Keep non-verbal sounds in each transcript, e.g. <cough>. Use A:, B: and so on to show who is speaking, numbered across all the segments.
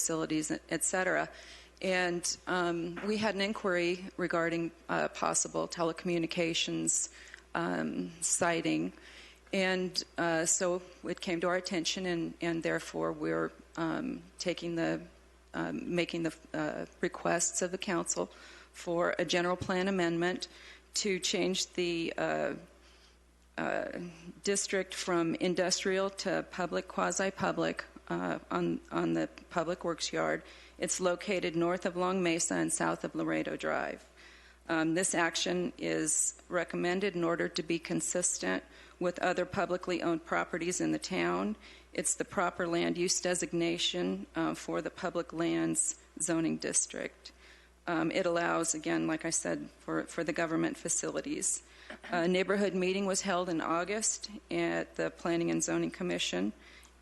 A: facilities, et cetera. And um, we had an inquiry regarding uh, possible telecommunications um, siting. And uh, so it came to our attention, and, and therefore we're um, taking the, um, making the uh, requests of the council for a general plan amendment to change the uh, uh, district from industrial to public, quasi-public uh, on, on the Public Works Yard. It's located north of Long Mesa and south of Laredo Drive. Um, This action is recommended in order to be consistent with other publicly owned properties in the town. It's the proper land use designation uh, for the public lands zoning district. Um, It allows, again, like I said, for, for the government facilities. A neighborhood meeting was held in August at the Planning and Zoning Commission,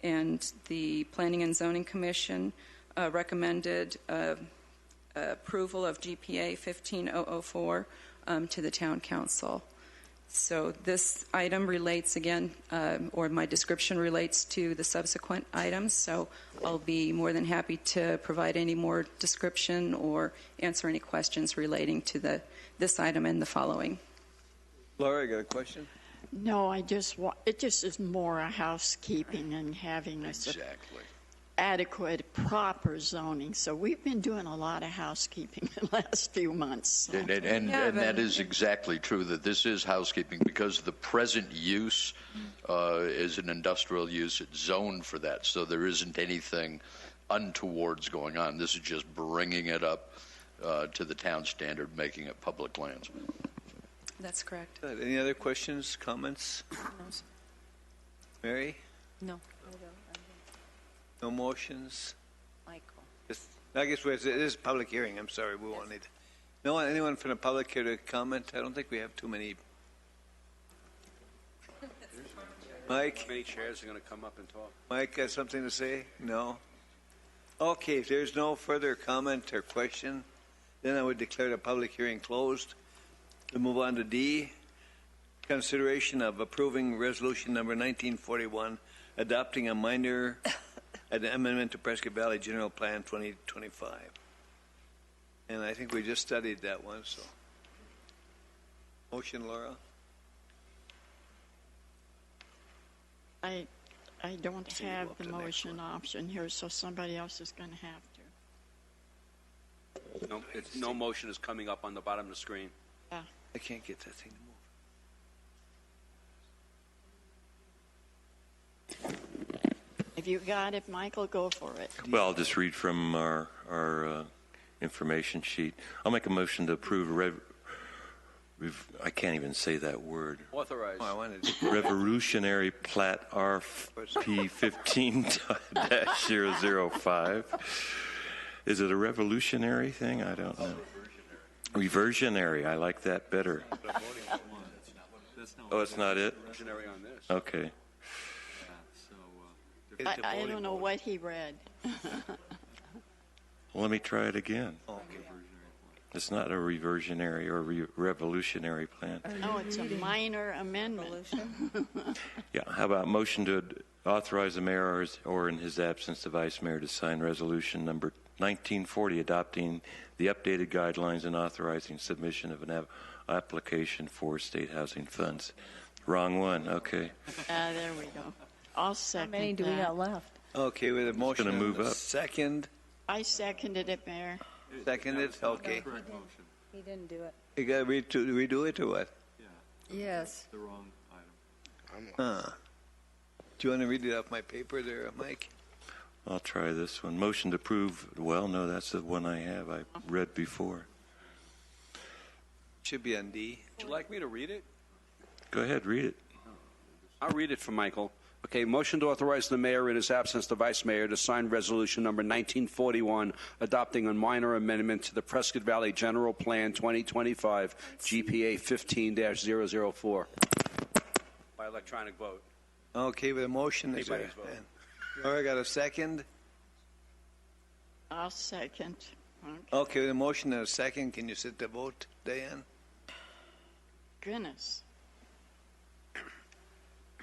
A: and the Planning and Zoning Commission uh, recommended uh, approval of GPA 15004 um, to the town council. So this item relates again, uh, or my description relates to the subsequent items, so I'll be more than happy to provide any more description or answer any questions relating to the, this item and the following.
B: Laura, you got a question?
C: No, I just want, it just is more a housekeeping and having a s- adequate, proper zoning. So we've been doing a lot of housekeeping <laughs> the last few months. so-
D: And, and, and,
A: Yeah,
D: and that
A: but-
D: is exactly true, that this is housekeeping, because the present use
A: Mm.
D: uh, is an industrial use, it's zoned for that, so there isn't anything untowards going on. This is just bringing it up uh, to the town standard, making it public lands.
A: That's correct.
B: Good. Any other questions, comments? Mary?
E: No.
B: No motions?
E: Michael.
B: Just- I guess we're, it is a public hearing, I'm sorry, we won't need, no, one- anyone from the public here to comment? I don't think we have too many. Mike,
F: Many chairs are going to come up and talk.
B: Mike has something to say? No? Okay, if there's no further comment or question, then I would declare the public hearing closed. We'll move on to D, consideration of approving resolution number 1941, adopting a minor an amendment to Prescott Valley General Plan 2025. And I think we just studied that one, so. Motion, Laura?
C: I, I don't
B: So you go
C: have
B: up
C: the
B: to the next
C: motion option here, so somebody else is going to have to.
F: No, it's, no motion is coming up on the bottom of the screen.
B: I can't get that thing to move.
C: If you got it, Michael, go for it.
G: Well, I'll just read from our, our uh, information sheet. I'll make a motion to approve, rev- rev- I can't even say that word,
F: Authorized.
B: Oh, I wanted to.
G: revolutionary plat RP <laughs> 15-005. Is it a revolutionary thing? I don't know. Reversionary, I like that better. Oh, it's not it?
F: Visionary on this.
G: Okay.
C: I, I don't know what he read.
G: Well, Let me try it again. It's not a reversionary or re- revolutionary plan.
C: No, Oh, it's a minor amendment.
G: Yeah, how about motion to authorize the mayor or his- or in his absence, the vice mayor to sign resolution number 1940 adopting the updated guidelines and authorizing submission of an app- application for state housing funds. Wrong one, okay.
C: Ah, there we go. I'll second that.
E: left?
B: Okay, with a motion
G: gonna
B: and
G: move
B: a
G: up.
B: second,
C: I seconded it, Mayor.
B: seconded, okay.
E: He didn't do it.
B: You gotta redo, redo it or what?
E: Yes.
B: Huh. Do you wanna read it off my paper there, Mike?
G: I'll try this one. Motion to approve, well, no, that's the one I have, I read before.
B: Should be on D.
F: Would you like me to read it?
G: Go ahead, read it.
F: I'll read it for Michael. Okay, motion to authorize the mayor in his absence, the vice mayor, to sign resolution number 1941, adopting a minor amendment to the Prescott Valley General Plan 2025, GPA 15-004. By electronic vote.
B: Okay, with a motion, is there?
F: Anybody's vote.
B: Laura got a second?
C: I'll second. Okay.
B: Okay, with a motion and a second, can you sit the vote, Diane?
C: Goodness.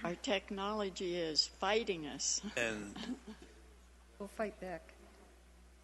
C: Our technology is fighting us.
B: And
E: We'll fight back.